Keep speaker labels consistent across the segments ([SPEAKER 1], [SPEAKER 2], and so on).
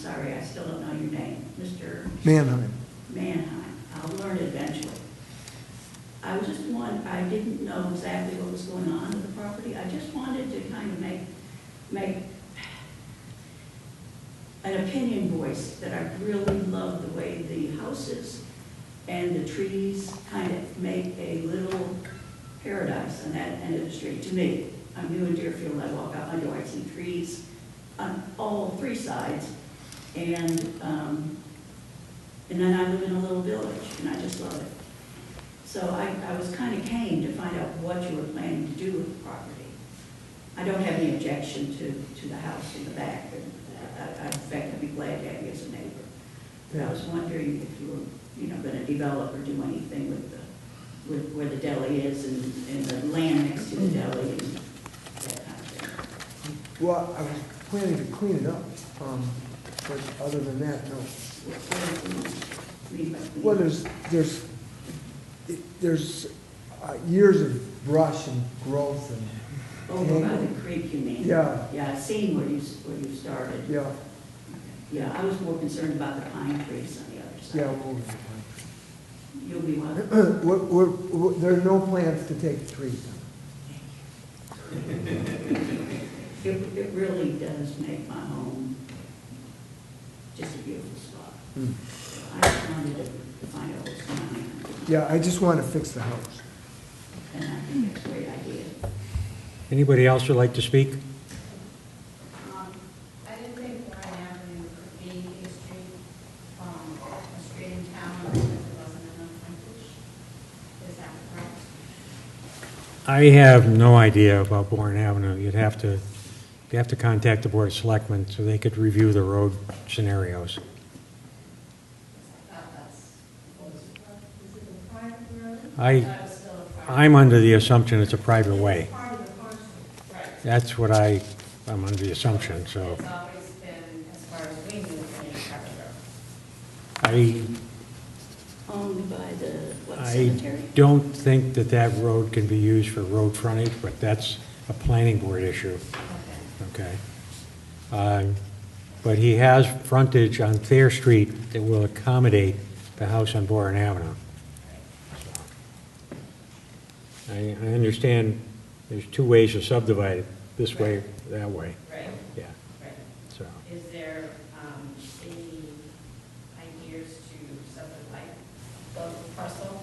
[SPEAKER 1] Sorry, I still don't know your name, Mr.
[SPEAKER 2] Manheim.
[SPEAKER 1] Manheim. I'll learn it eventually. I was just one, I didn't know exactly what was going on with the property. I just wanted to kind of make, make an opinion voice that I really love the way the houses and the trees kind of make a little paradise on that end of the street, to me. I'm new in Deerfield, I walk out my door, I see trees on all three sides. And, um, and then I live in a little village, and I just love it. So I, I was kind of keen to find out what you were planning to do with the property. I don't have any objection to, to the house in the back, and I, I, in fact, I'd be glad to have you as a neighbor. But I was wondering if you were, you know, gonna develop or do anything with the, with where the deli is and, and the land next to the deli and that kind of thing.
[SPEAKER 2] Well, I was planning to clean it up, um, but other than that, no.
[SPEAKER 1] What- what do you mean by clean?
[SPEAKER 2] Well, there's, there's, there's uh, years of brush and growth and,
[SPEAKER 1] Over Oh, by the creek, you mean?
[SPEAKER 2] Yeah.
[SPEAKER 1] Yeah, I seen where you, s- where you started.
[SPEAKER 2] yeah,
[SPEAKER 1] Yeah, I was more concerned about the pine trees on the other side.
[SPEAKER 2] yeah, we'll get it.
[SPEAKER 1] You'll be one.
[SPEAKER 2] We're, we're, we're- there are no plans to take the trees down.
[SPEAKER 1] It, it really does make my home just a beautiful spot. I just wanted to find out what's going on,
[SPEAKER 2] Yeah, I just want to fix the house.
[SPEAKER 1] and I think it's a great idea.
[SPEAKER 3] Anybody else would like to speak?
[SPEAKER 4] Um, I didn't think Warren Avenue could be a street, um, a street in town because there wasn't enough frontage. Is that correct?
[SPEAKER 3] I have no idea about Bourne Avenue. You'd have to, you'd have to contact the Board of Selectmen so they could review the road scenarios.
[SPEAKER 4] I thought that's, was, is it a private road?
[SPEAKER 3] I-
[SPEAKER 4] That was still a private.
[SPEAKER 3] I'm under the assumption it's a private way.
[SPEAKER 4] Part of the parcel. Right.
[SPEAKER 3] That's what I, I'm under the assumption, so
[SPEAKER 4] It's always been, as far as we knew, been a private
[SPEAKER 3] I,
[SPEAKER 4] road.
[SPEAKER 1] Owned by the, what,
[SPEAKER 3] I
[SPEAKER 1] cemetery?
[SPEAKER 3] don't think that that road can be used for road frontage, but that's a planning board issue,
[SPEAKER 4] Okay.
[SPEAKER 3] okay? Um, But he has frontage on Thayer Street that will accommodate the house on Bourne Avenue. I, I understand there's two ways to subdivide it, this way, that way,
[SPEAKER 4] Right,
[SPEAKER 3] yeah,
[SPEAKER 4] right.
[SPEAKER 3] so.
[SPEAKER 4] Is there, um, any ideas to something like the parcel?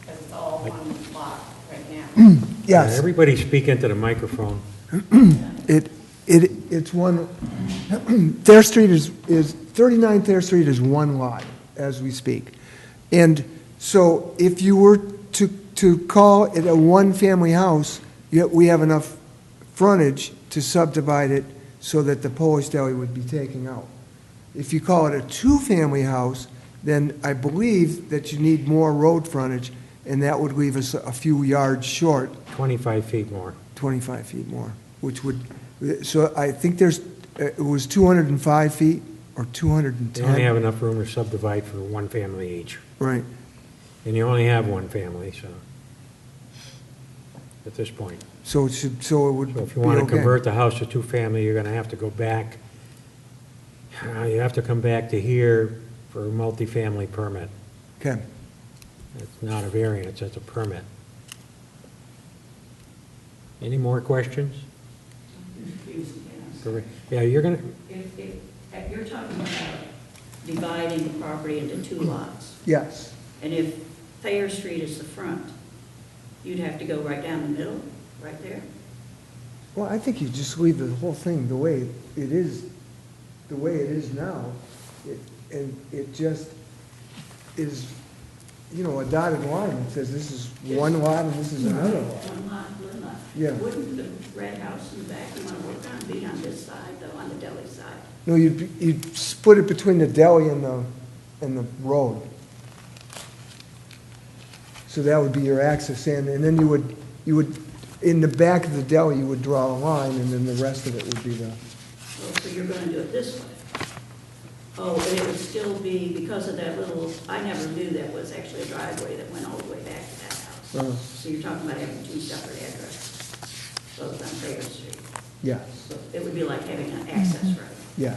[SPEAKER 4] Because it's all one lot right now.
[SPEAKER 2] Yes.
[SPEAKER 3] Uh, Everybody speak into the microphone.
[SPEAKER 2] It, it, it's one, Thayer Street is, is, 39 Thayer Street is one lot as we speak. And so if you were to, to call it a one-family house, yet we have enough frontage to subdivide it so that the Polish deli would be taken out. If you call it a two-family house, then I believe that you need more road frontage, and that would leave us a few yards short
[SPEAKER 3] 25 feet more.
[SPEAKER 2] 25 feet more, which would, so I think there's, uh, it was 205 feet or
[SPEAKER 3] They only have
[SPEAKER 2] 210?
[SPEAKER 3] enough room to subdivide for one family each,
[SPEAKER 2] Right.
[SPEAKER 3] and you only have one family, so, at this point.
[SPEAKER 2] So it should, so it would
[SPEAKER 3] So
[SPEAKER 2] be
[SPEAKER 3] if you want to convert
[SPEAKER 2] okay.
[SPEAKER 3] the house to two-family, you're going to have to go back, uh, you have to come back to here for a multifamily permit.
[SPEAKER 2] Okay,
[SPEAKER 3] It's not a variance, it's a permit. Any more questions?
[SPEAKER 1] Excuse me, I'm sorry.
[SPEAKER 3] Yeah, you're going to,
[SPEAKER 1] If, if, if you're talking about dividing the property into two lots,
[SPEAKER 2] yes.
[SPEAKER 1] and if Thayer Street is the front, you'd have to go right down the middle, right there?
[SPEAKER 2] Well, I think you just leave the whole thing the way it is, the way it is now. It- And it just is, you know, a dotted line that says this is one lot and this is another lot.
[SPEAKER 1] One lot, one lot.
[SPEAKER 2] Yeah.
[SPEAKER 1] Wouldn't the red house in the back you want to work on be on this side, though, on the deli side?
[SPEAKER 2] No, you'd, be- you'd split it between the deli and the, and the road. So that would be your access in, and then you would, you would, in the back of the deli, you would draw a line, and then the rest of it would be the,
[SPEAKER 1] Oh, so you're going to do it this way? Oh, and it would still be because of that little, I never knew that was actually a driveway that went all the way back to that
[SPEAKER 2] Uh-huh.
[SPEAKER 1] house. So you're talking about having two separate addresses, both on Thayer Street.
[SPEAKER 2] yes, Mm-hmm.
[SPEAKER 1] So it would be like having an access road.
[SPEAKER 2] yeah.